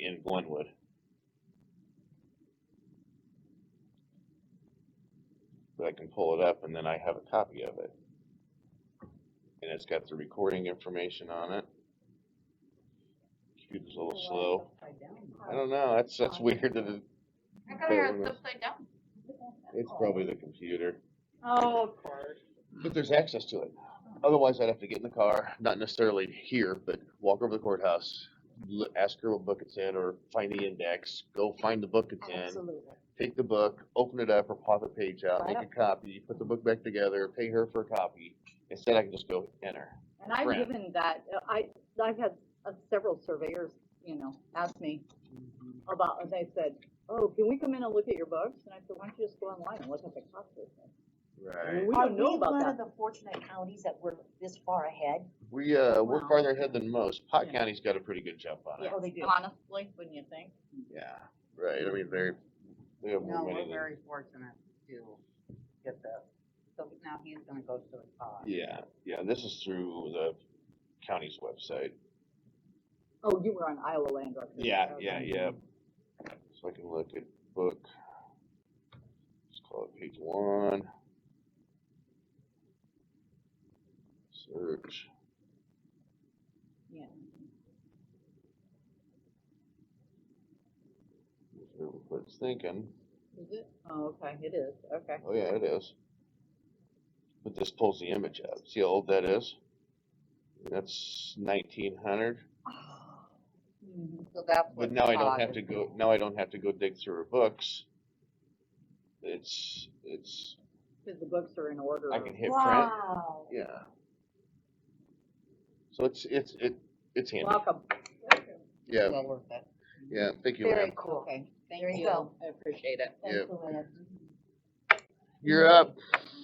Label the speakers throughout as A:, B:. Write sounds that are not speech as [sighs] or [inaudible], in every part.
A: in Glenwood. But I can pull it up and then I have a copy of it. And it's got the recording information on it. Cube's a little slow. I don't know, that's, that's weird that it,
B: I thought I had it upside down.
A: it's probably the computer.
B: Oh, of course.
A: But there's access to it. Otherwise, I'd have to get in the car, not necessarily here, but walk over to the courthouse, l- ask her what book it's in, or find the index, go find the book it's in,
C: Absolutely.
A: take the book, open it up, or pop the page out, make a
C: Right.
A: copy, put the book back together, pay her for a copy. Instead, I can just go enter.
C: And I've
A: Brand.
C: given that, I, I've had uh, several surveyors, you know, ask me about, and they said, oh, can we come in and look at your books? And I said, why don't you just go online and look at the cost of this? I mean, We
D: Are
C: don't know
D: we
C: about
D: one
C: that.
D: of the fortunate counties that we're this far ahead?
A: We, uh, we're
C: Wow.
A: farther ahead than most. Pot
C: Yeah.
A: County's got a pretty good jump on it.
D: Oh, they do.
C: Honestly, wouldn't you think?
A: Yeah, right, I mean, very, we have
E: No,
A: more money
E: we're
A: than.
E: very fortunate to get this. So now he's gonna go to the car.
A: Yeah, yeah, this is through the county's website.
C: Oh, you were on Iowa Land Records.
A: Yeah,
C: Okay.
A: yeah, yeah. So I can look at book. Let's call it page one. Search.
C: Yeah.
A: Let's see What it's thinking.
C: Is it? Oh, okay, it is, okay.
A: [sighs] Oh yeah, it is. But this pulls the image up. See how old that is? That's nineteen hundred.
C: Mhm.
E: So that's what.
A: But now I don't
E: Todd
A: have
E: is
A: to go,
E: doing.
A: now I don't have to go dig through her books. It's, it's,
C: Cause the books are in order.
A: I can hit print,
D: Wow.
A: yeah. So it's, it's, it, it's handy,
C: Welcome.
A: yeah,
E: Well worth it.
A: yeah, thank you,
D: Very
A: Lynn.
D: cool.
E: Okay, thank
D: There you
E: you.
D: go.
C: I appreciate it.
D: Thank
A: Yep.
D: you, Lynn.
A: You're up,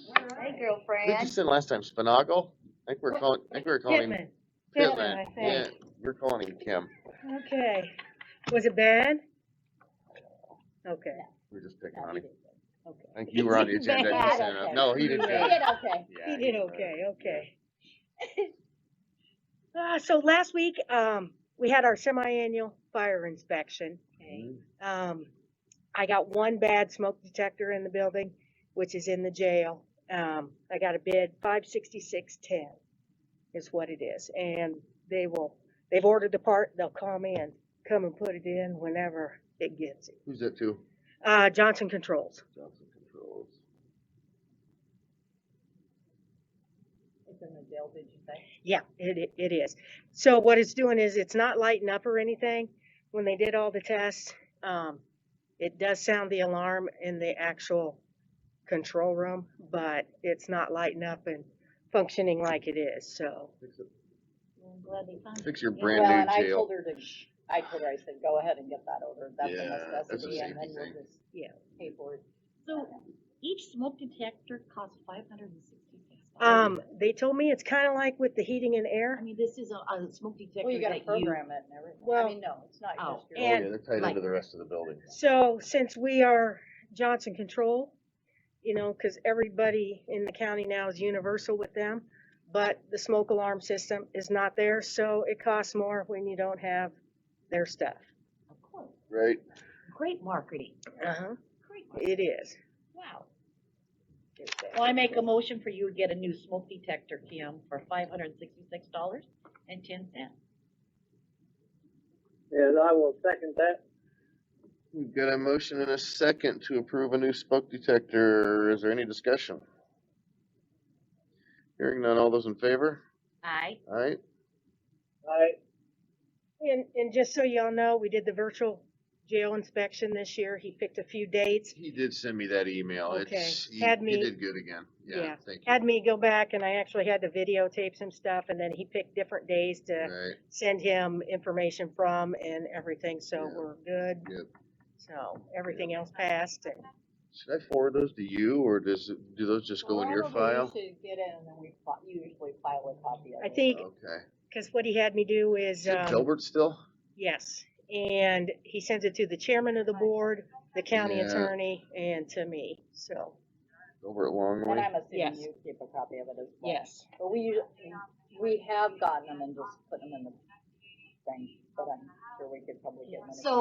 D: Hey, girl,
A: I think you
D: Fran.
A: said last time, Spinagle? I think we're calling, I think we're calling.
F: Pittman.
A: Pittman,
F: I
A: yeah,
F: think.
A: we're calling him Kim,
F: Okay. Was it bad? Okay.
A: we're just picking on him,
D: Okay.
A: I think you were on the
F: He did
A: agenda, you
D: bad,
A: sent up,
D: okay.
A: no, he did good.
F: He [laughs] did
D: okay.
A: Yeah,
F: He did
A: all
F: okay,
A: right.
F: okay. [laughs] Uh, so last week, um, we had our semi-annual fire inspection.
A: Mhm.
F: Um, I got one bad smoke detector in the building, which is in the jail. Um, I got a bid five sixty-six ten is what it is, and they will, they've ordered the part, they'll come in, come and put it in whenever it gets. it.
A: Who's that to?
F: Uh, Johnson Controls.
A: Johnson Controls.
C: It's in the jail, did you say?
F: Yeah, it, i- it is. So what it's doing is it's not lighting up or anything. When they did all the tests, um, it does sound the alarm in the actual control room, but it's not lighting up and functioning like it is, so.
A: Fix it- Oh,
D: I'm glad they found it.
A: Fix your
D: Yeah,
A: brand
C: Well,
A: new
C: and I
A: jail.
C: told her to, I told her, I said, go ahead and get that ordered, that's
A: Yeah, that's a
C: a necessity, and
A: safety
C: then
A: thing.
C: we'll just.
F: Yeah.
C: Pay for it.
D: So each smoke detector costs five hundred and sixty-six dollars.
F: Um, they told me it's kinda like with the heating and
D: I
F: air.
D: mean, this is a, a smoke detector that you.
C: Well, you gotta program it and everything, I
F: Well,
C: mean, no, it's not
D: oh,
C: just
A: Oh,
C: your.
F: and-
A: yeah, they're tied
D: like-
A: into the rest of the building.
F: So since we are Johnson Control, you know, cause everybody in the county now is universal with them, but the smoke alarm system is not there, so it costs more when you don't have their stuff.
D: Of course.
A: Right.
D: Great marketing.
F: Uh-huh.
D: Great. marketing.
F: It is.
D: Wow. Well, I make a motion for you to get a new smoke detector, Kim, for five hundred and sixty-six dollars and ten cents.
G: And I will second that.
A: We've got a motion and a second to approve a new smoke detector. Is there any discussion? Hearing none, all those in favor?
D: Aye.
A: Alright,
G: I,
F: And, and just so y'all know, we did the virtual jail inspection this year. He picked a few dates.
A: he did send me that email.
F: Okay,
A: It's, he,
F: had
A: he
F: me-
A: did good again. Yeah,
F: yeah,
A: thank you.
F: Had me go back and I actually had to videotape some stuff and then he picked different days to
A: Right,
F: send him information from and everything, so
A: Yeah.
F: we're good.
A: good.
F: So everything else passed and
A: Should I forward those to you or does, it- do those just go in your file?
C: Probably you should get in and then we fi- you usually file a copy of it.
F: I think,
A: Okay.
F: cause what he had me do is,
A: Is it
F: um,
A: Gilbert still?
F: yes. And he sends it to the chairman of the board, the county
A: Yeah.
F: attorney, and to me, so.
A: Gilbert Longley?
C: And I'm assuming
F: Yes.
C: you keep a copy of it as well.
F: Yes.
C: But we, usu- we have gotten them and just put them in the thing, but I'm sure we could probably get them. in a
D: So